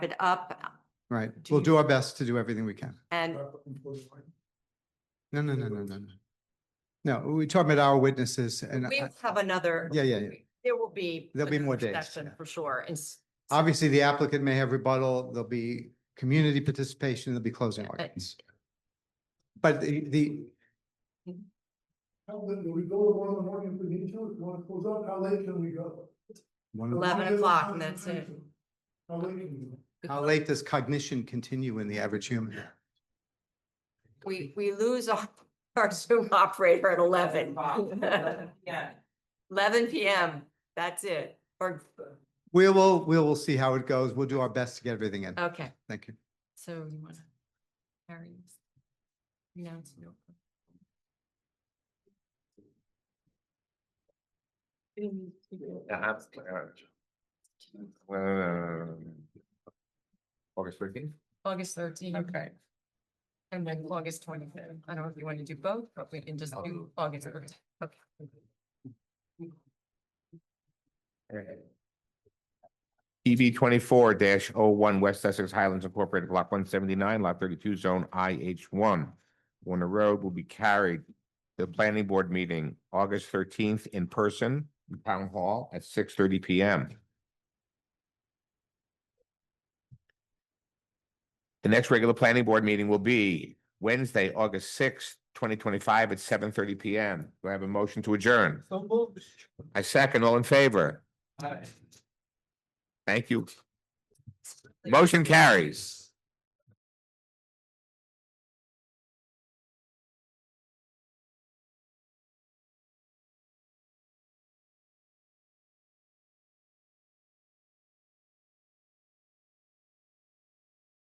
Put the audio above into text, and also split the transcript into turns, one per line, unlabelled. it up
Right.
Do
We'll
you-
do our best to do everything we can.
and,
No, no, no, no, no, no. No, we're talking about our witnesses and
We
I-
will have another.
Yeah, yeah, yeah.
There will be.
There'll be more
another
days,
session
yeah.
For sure. And s-
obviously the applicant may have rebuttal. There'll be community participation. There'll be closing
but-
arguments. But the, the,
How late, do we go at one in the morning if we need to, if we wanna close out, how late can we go?
one of-
11 o'clock, and that's it.
How late can we go?
how late does cognition continue in the average human?
we, we lose our, our Zoom operator at eleven.
Yeah.
Eleven PM, that's it. Or,
We will, we will see how it goes. We'll do our best to get everything in.
okay,
Thank you.
so you want to carry this? No, it's no.
Perhaps. August thirteenth?
August thirteenth.
Okay.
And then August twenty-fifth. I don't know if you want to do both, but we can just do August thirteenth. Okay.
EV twenty-four dash oh West Sussex Highlands Incorporated Block one seventy-nine, Lot thirty-two, Zone IH one. Warner Road will be carried to the planning board meeting August thirteenth in person, in Town Hall at six thirty P M. The next regular planning board meeting will be Wednesday, August sixth, twenty twenty-five at seven thirty P M. Do I have a motion to adjourn?
So moved.
I second, all in favor? Thank you. Motion carries.